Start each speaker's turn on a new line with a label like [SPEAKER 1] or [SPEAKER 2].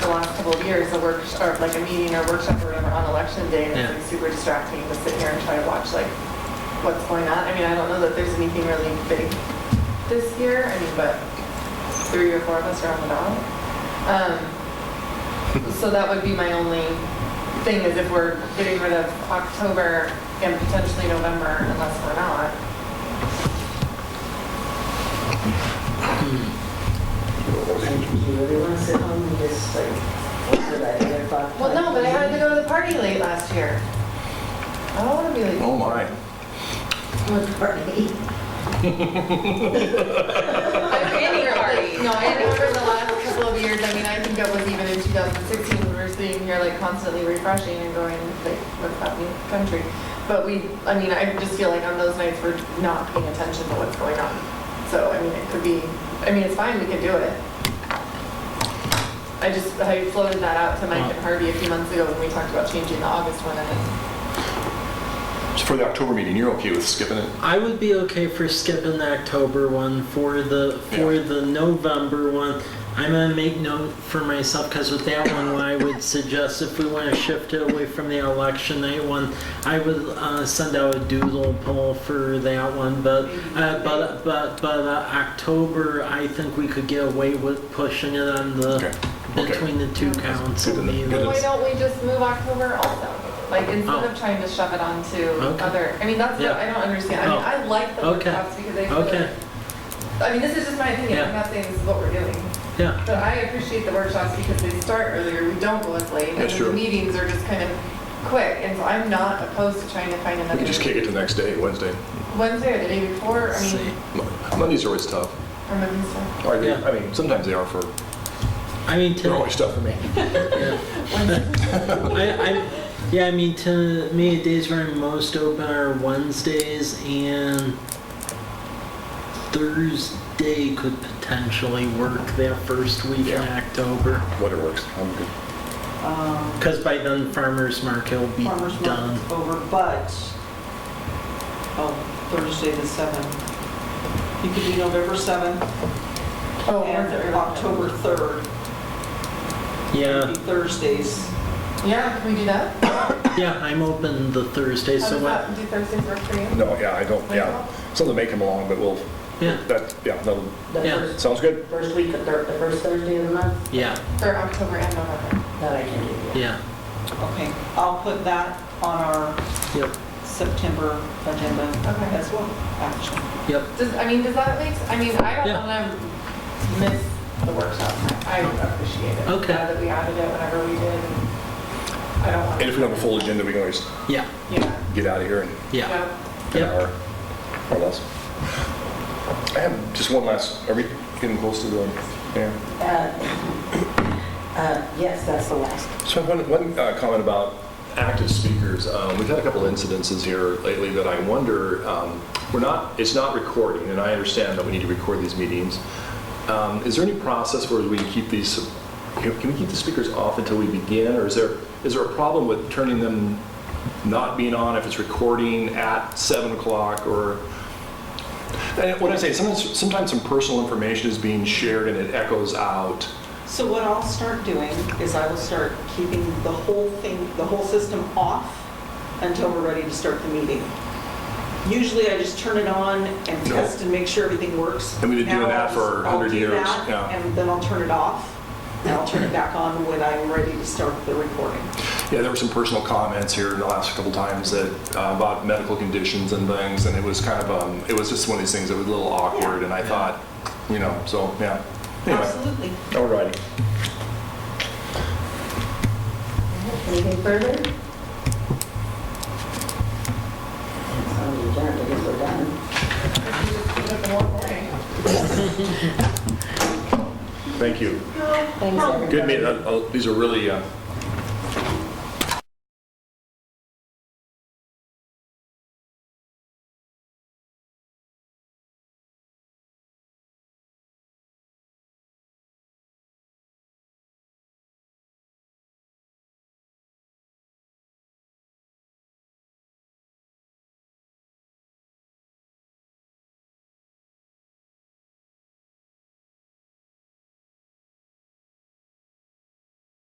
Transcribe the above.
[SPEAKER 1] couple of years, a work, or like a meeting or workshop or whatever on election day, and it's
[SPEAKER 2] Yeah.
[SPEAKER 1] like super distracting to sit here and try to watch like what's going on. I mean, I don't know that there's anything really big this year, I mean, but three or four of us are on the ballot. Um, So that would be my only thing is if we're getting rid of October and potentially November unless we're not.
[SPEAKER 3] Do you want to sit home and just like, what's it, like eight o'clock?
[SPEAKER 1] Well, no, but I had to go to the party late last year. I don't want to be late.
[SPEAKER 4] Oh, my.
[SPEAKER 3] What party?
[SPEAKER 1] I've been here already. No, and over the last couple of years, I mean, I think it was even in 2016, we were sitting here like constantly refreshing and going, like, what's happening in the country? But we, I mean, I just feel like on those nights, we're not paying attention to what's going on. So, I mean, it could be, I mean, it's fine, we can do it. I just, I floated that out to Mike and Harvey a few months ago when we talked about changing the August one, and
[SPEAKER 4] So for the October meeting, you're okay with skipping it?
[SPEAKER 2] I would be okay for skipping the October one for the for
[SPEAKER 4] Yeah.
[SPEAKER 2] the November one. I'm gonna make note for myself because with that one, what I would suggest if we want to shift it away from the election night one, I would uh, send out a doodle poll for that one. But uh, but but but uh, October, I think we could get away with pushing it on the
[SPEAKER 4] Okay. Okay.
[SPEAKER 2] between the two
[SPEAKER 1] Good
[SPEAKER 2] council
[SPEAKER 4] to know.
[SPEAKER 1] then
[SPEAKER 4] Good to know.
[SPEAKER 2] meetings.
[SPEAKER 1] why don't we just move October also? Like, instead of trying to shove it onto
[SPEAKER 2] Oh. Okay.
[SPEAKER 1] other, I mean, that's, what
[SPEAKER 2] Yeah.
[SPEAKER 1] I don't understand. I mean,
[SPEAKER 2] Oh.
[SPEAKER 1] I like the
[SPEAKER 2] Okay.
[SPEAKER 1] workshops because they feel
[SPEAKER 2] Okay,
[SPEAKER 1] I mean, this is just my opinion, I'm
[SPEAKER 2] Yeah.
[SPEAKER 1] not saying this is what we're doing,
[SPEAKER 2] yeah.
[SPEAKER 1] but I appreciate the workshops because they start earlier, we don't go as late, and
[SPEAKER 4] That's
[SPEAKER 1] then the
[SPEAKER 4] true.
[SPEAKER 1] meetings are just kind of quick, and so I'm not opposed to trying to find
[SPEAKER 4] We
[SPEAKER 1] another
[SPEAKER 4] can just kick it to the next day, Wednesday.
[SPEAKER 1] Wednesday or the day before, I
[SPEAKER 2] See.
[SPEAKER 1] mean,
[SPEAKER 4] Mon- Mondays are always tough.
[SPEAKER 1] or maybe so.
[SPEAKER 4] Or they-
[SPEAKER 2] Yeah.
[SPEAKER 4] I mean, sometimes they are for,
[SPEAKER 2] I mean,
[SPEAKER 4] they're
[SPEAKER 2] to,
[SPEAKER 4] always tough for me.
[SPEAKER 2] yeah.
[SPEAKER 1] Wednesday.
[SPEAKER 2] I, I, yeah, I mean, to me, the days where I'm most open are Wednesdays and Thursday could potentially work that first week in
[SPEAKER 4] Yeah.
[SPEAKER 2] October.
[SPEAKER 4] Whatever works, I'm good.
[SPEAKER 5] um,
[SPEAKER 2] Because by then, farmer's market will be
[SPEAKER 5] farmer's
[SPEAKER 2] done.
[SPEAKER 5] market's over, but, oh, Thursday the 7th. You could do November 7th
[SPEAKER 1] Oh, Wednesday
[SPEAKER 5] and
[SPEAKER 1] or-
[SPEAKER 5] October 3rd.
[SPEAKER 2] Yeah,
[SPEAKER 5] It'd be Thursdays.
[SPEAKER 1] Yeah, can we do that?
[SPEAKER 2] yeah, I'm open the Thursday,
[SPEAKER 1] How
[SPEAKER 2] so
[SPEAKER 1] does
[SPEAKER 2] what?
[SPEAKER 1] that, do Thursdays work for you?
[SPEAKER 4] No, yeah, I don't, yeah. Something may come along, but we'll,
[SPEAKER 2] Yeah,
[SPEAKER 4] that, yeah, that
[SPEAKER 3] The
[SPEAKER 2] Yeah.
[SPEAKER 3] first-
[SPEAKER 4] sounds good.
[SPEAKER 3] First week, of Thur- the first Thursday of the month,
[SPEAKER 2] yeah,
[SPEAKER 1] For October and November.
[SPEAKER 3] that I can do. yeah.
[SPEAKER 2] yeah,
[SPEAKER 5] Okay, I'll put that on our
[SPEAKER 2] yep,
[SPEAKER 5] September agenda
[SPEAKER 1] Okay.
[SPEAKER 5] as well, actually.
[SPEAKER 2] yep.
[SPEAKER 1] Does, I mean, does that make, s- I mean, I don't
[SPEAKER 2] Yeah.
[SPEAKER 1] wanna miss the workshop. I appreciate it.
[SPEAKER 2] Okay.
[SPEAKER 1] Glad That we added it whenever we did. I don't want.
[SPEAKER 4] And if we don't have a full agenda, we can always
[SPEAKER 2] Yeah,
[SPEAKER 1] Yeah.
[SPEAKER 4] get out of here in
[SPEAKER 2] yeah.
[SPEAKER 1] Yeah.
[SPEAKER 4] an
[SPEAKER 2] Yep.
[SPEAKER 4] hour or less. I have just one last, are we getting close to the, yeah?
[SPEAKER 3] Uh, uh, Yes, that's the last.
[SPEAKER 4] So one, one uh, comment about active speakers. Um, We've had a couple incidences here lately that I wonder, um, we're not, it's not recording, and I understand that we need to record these meetings. Um, Is there any process where we keep these, can can we keep the speakers off until we begin? Or is there, is there a problem with turning them not being on if it's recording at 7 o'clock or? And what I say, sometimes, sometimes some personal information is being shared and it echoes out.
[SPEAKER 5] So what I'll start doing is I will start keeping the whole thing, the whole system off until we're ready to start the meeting. Usually I just turn it on and
[SPEAKER 4] No.
[SPEAKER 5] test and make sure everything works.
[SPEAKER 4] And we've been doing
[SPEAKER 5] Now
[SPEAKER 4] that
[SPEAKER 5] I'll
[SPEAKER 4] for
[SPEAKER 5] just-
[SPEAKER 4] 100 years,
[SPEAKER 5] I'll do
[SPEAKER 4] yeah.
[SPEAKER 5] that, and then I'll turn it off, and I'll turn it back on when I'm ready to start the recording.
[SPEAKER 4] Yeah, there were some personal comments here the last couple times that, uh, about medical conditions and things, and it was kind of, um, it was just one of these things that was a little awkward, and I thought, you know, so, yeah. Anyway,
[SPEAKER 5] Absolutely.
[SPEAKER 4] all righty.
[SPEAKER 3] Anything further? Oh, you're done, I guess we're done.
[SPEAKER 4] Thank you.
[SPEAKER 3] Thanks, everybody.
[SPEAKER 4] Good meeting, Uh, uh, these are really, uh,